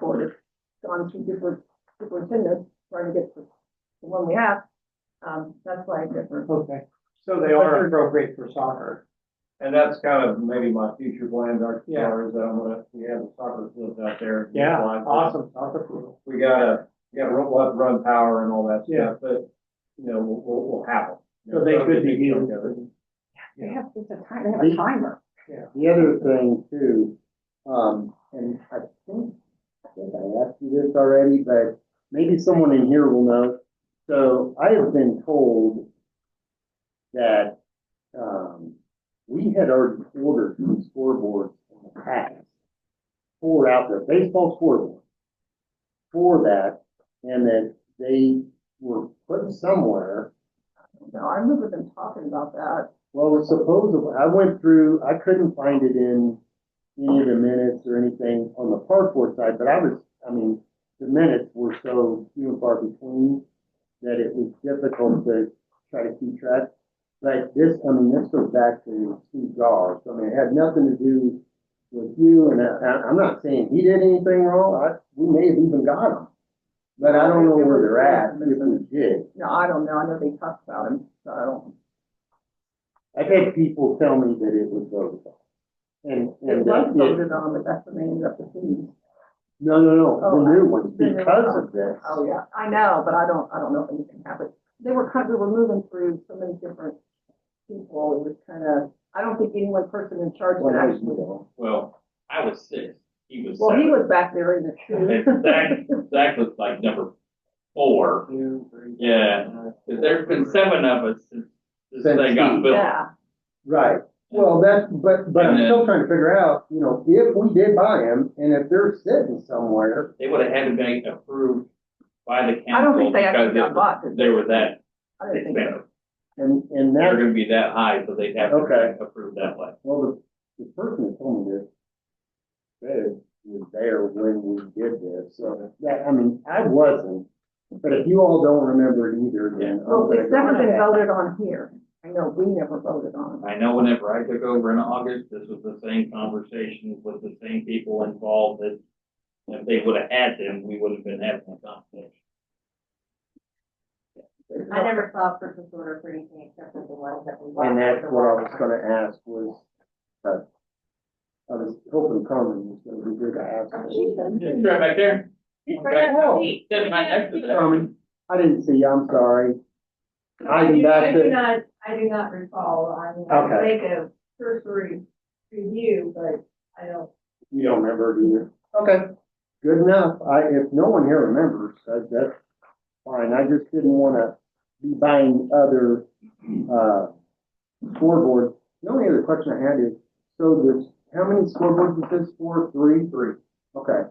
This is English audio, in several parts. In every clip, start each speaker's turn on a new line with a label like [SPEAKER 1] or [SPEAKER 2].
[SPEAKER 1] board has gone through different superintendents, trying to get the the one we have. Um, that's why I differ.
[SPEAKER 2] Okay,
[SPEAKER 3] So
[SPEAKER 2] they are appropriate for soccer.
[SPEAKER 3] And that's kind of maybe my future plans are,
[SPEAKER 2] Yeah.
[SPEAKER 3] are is that I'm gonna, we have a soccer field out there.
[SPEAKER 2] Yeah,
[SPEAKER 3] Like,
[SPEAKER 2] awesome, soccer pool.
[SPEAKER 3] We gotta, we gotta roll up, run power and all that
[SPEAKER 2] Yeah.
[SPEAKER 3] stuff, but, you know, will, will, will happen.
[SPEAKER 2] So they could be
[SPEAKER 3] You
[SPEAKER 2] used.
[SPEAKER 3] know,
[SPEAKER 1] They have, it's a time, they have a timer.
[SPEAKER 4] The other thing too, um, and I think, I think I asked you this already, but maybe someone in here will know. So I have been told that, um, we had already ordered some scoreboards in the past. For out there, baseball scoreboard. For that, and that they were put somewhere
[SPEAKER 1] No, I remember them talking about that.
[SPEAKER 4] well, supposedly, I went through, I couldn't find it in any of the minutes or anything on the park board side, but I was, I mean, the minutes were so few and far between that it was difficult to try to keep track. But this, I mean, this goes back to Steve Goss. I mean, it had nothing to do with you, and I, I'm not saying he did anything wrong. I, we may have even got him. But I don't know where they're at, if we did.
[SPEAKER 1] No, I don't know. I know they talked about him, so I don't.
[SPEAKER 4] I've had people tell me that it was voted on. And,
[SPEAKER 1] It
[SPEAKER 4] and
[SPEAKER 1] was
[SPEAKER 4] that it,
[SPEAKER 1] voted on, but that's the name of the team.
[SPEAKER 4] no, no, no,
[SPEAKER 1] Oh,
[SPEAKER 4] the new one,
[SPEAKER 1] the new
[SPEAKER 4] because
[SPEAKER 1] one.
[SPEAKER 4] of this.
[SPEAKER 1] Oh, yeah, I know, but I don't, I don't know if anything happened. They were kind, we were moving through so many different people. It was kind of, I don't think any one person in charge
[SPEAKER 4] Well,
[SPEAKER 1] could
[SPEAKER 4] there's
[SPEAKER 1] actually.
[SPEAKER 4] no-
[SPEAKER 5] Well, I was six, he was
[SPEAKER 1] Well, he
[SPEAKER 5] seven.
[SPEAKER 1] was back there in the
[SPEAKER 5] And
[SPEAKER 1] shoe.
[SPEAKER 5] Zach, Zach was like number four,
[SPEAKER 3] Two, three,
[SPEAKER 5] yeah,
[SPEAKER 3] nine,
[SPEAKER 5] 'Cause there's been seven of us since this
[SPEAKER 4] Since
[SPEAKER 5] thing got
[SPEAKER 4] he-
[SPEAKER 5] built.
[SPEAKER 1] Yeah,
[SPEAKER 4] Right, well, that, but, but I'm
[SPEAKER 5] And
[SPEAKER 4] still
[SPEAKER 5] then-
[SPEAKER 4] trying to figure out, you know, if we did buy them, and if they're sitting somewhere,
[SPEAKER 5] They would have had to be approved by the
[SPEAKER 1] I don't
[SPEAKER 5] council
[SPEAKER 1] think they
[SPEAKER 5] because
[SPEAKER 1] actually
[SPEAKER 5] they
[SPEAKER 1] got
[SPEAKER 5] were-
[SPEAKER 1] bought. did they?
[SPEAKER 5] they were that
[SPEAKER 1] I didn't think so.
[SPEAKER 5] expensive.
[SPEAKER 4] and, and
[SPEAKER 5] They're
[SPEAKER 4] that,
[SPEAKER 5] gonna be that high, so they'd have to
[SPEAKER 4] Okay.
[SPEAKER 5] be approved that way.
[SPEAKER 4] well, the, the person that told me this, said was there when we did this, so, that, I mean, I wasn't, but if you all don't remember it either, then. I'm
[SPEAKER 1] Well,
[SPEAKER 4] gonna
[SPEAKER 1] it's
[SPEAKER 4] go
[SPEAKER 1] never
[SPEAKER 4] with
[SPEAKER 1] been
[SPEAKER 4] that.
[SPEAKER 1] voted on here. I know, we never voted on it.
[SPEAKER 5] I know whenever I took over in August, this was the same conversation with the same people involved that if they would have had them, we would have been having a conversation.
[SPEAKER 1] It's
[SPEAKER 6] I
[SPEAKER 1] not-
[SPEAKER 6] never saw a purchase order for anything except for the ones that we bought.
[SPEAKER 4] And that's what I was gonna ask was, uh, I was hoping Carmen was gonna be good to ask.
[SPEAKER 6] She's a-
[SPEAKER 5] Just right back there.
[SPEAKER 6] she's right
[SPEAKER 5] Back-
[SPEAKER 6] at home.
[SPEAKER 5] Sitting right next to that.
[SPEAKER 4] Carmen, I didn't see you, I'm sorry. I do not-
[SPEAKER 6] I do not, I do not recall, I mean, I
[SPEAKER 4] Okay.
[SPEAKER 6] make a cursory review, but I don't.
[SPEAKER 4] You don't remember it either. Okay. Good enough. I, if no one here remembers, that, that's fine. I just didn't wanna be buying other, uh, scoreboards. The only other question I had is, so there's, how many scoreboards is this for? Three?
[SPEAKER 3] Three.
[SPEAKER 4] Okay.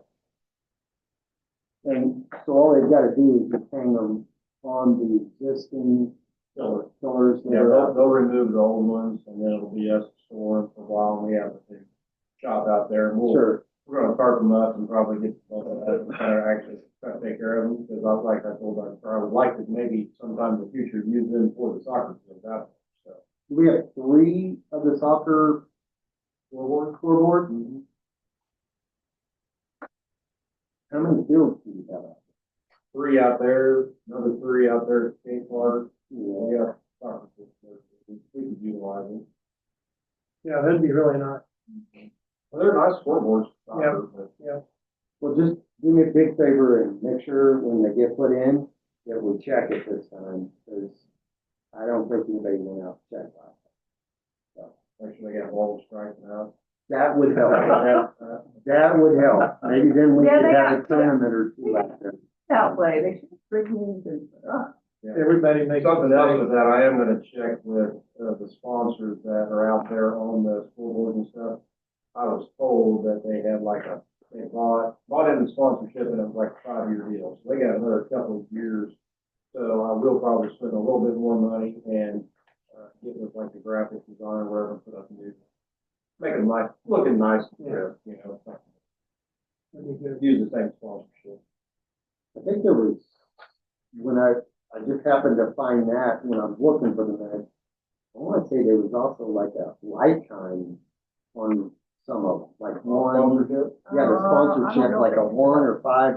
[SPEAKER 4] And so all they've gotta do is just hang them on the existing
[SPEAKER 3] so,
[SPEAKER 4] pillars that
[SPEAKER 3] Yeah,
[SPEAKER 4] are
[SPEAKER 3] they'll,
[SPEAKER 4] up.
[SPEAKER 3] they'll remove the old ones and then it'll be us storing for a while and we have a big shop out there and we'll,
[SPEAKER 4] Sure.
[SPEAKER 3] we're gonna carve them up and probably get, uh, actually try to take care of them, because I, like I told our, or I would like to maybe sometime in the future use them for the soccer field out there, so.
[SPEAKER 4] Do we have three of the soccer scoreboard, scoreboard?
[SPEAKER 3] Mm-hmm.
[SPEAKER 4] How many fields do you have?
[SPEAKER 3] Three out there, another three out there at skate park,
[SPEAKER 4] Yeah.
[SPEAKER 3] we have soccer field, there, we could utilize them.
[SPEAKER 2] Yeah, that'd be really nice.
[SPEAKER 3] Well, they're nice scoreboards, soccer, but
[SPEAKER 4] Well, just do me a big favor and make sure when they get put in, that we check it this time, because I don't think anybody went out to check last.
[SPEAKER 3] actually they got walls striking out.
[SPEAKER 4] That would help. That-
[SPEAKER 3] Uh,
[SPEAKER 4] That would help. Maybe then we
[SPEAKER 1] Yeah,
[SPEAKER 4] could
[SPEAKER 1] they
[SPEAKER 4] have a
[SPEAKER 1] got-
[SPEAKER 4] tournament or two out there.
[SPEAKER 1] That way, they should bring me into, uh,
[SPEAKER 2] Everybody makes.
[SPEAKER 3] Something else with that, I am gonna check with, uh, the sponsors that are out there on the scoreboard and stuff. I was told that they had like a, they bought, bought in the sponsorship and it was like a five-year deal, so they got another couple of years. So I will probably spend a little bit more money and, uh, get with like the graphic designer, wherever, put up new. Make it nice, looking nice, you know, use the same sponsorship.
[SPEAKER 4] I think there was, when I, I just happened to find that when I was looking for the match. I wanna say there was also like a lifetime on some of them, like
[SPEAKER 3] Sponsorship?
[SPEAKER 4] Yeah,
[SPEAKER 1] Uh,
[SPEAKER 4] the
[SPEAKER 1] I don't
[SPEAKER 4] sponsorship,
[SPEAKER 1] know
[SPEAKER 4] like
[SPEAKER 1] if
[SPEAKER 4] a
[SPEAKER 1] it's-
[SPEAKER 4] one or five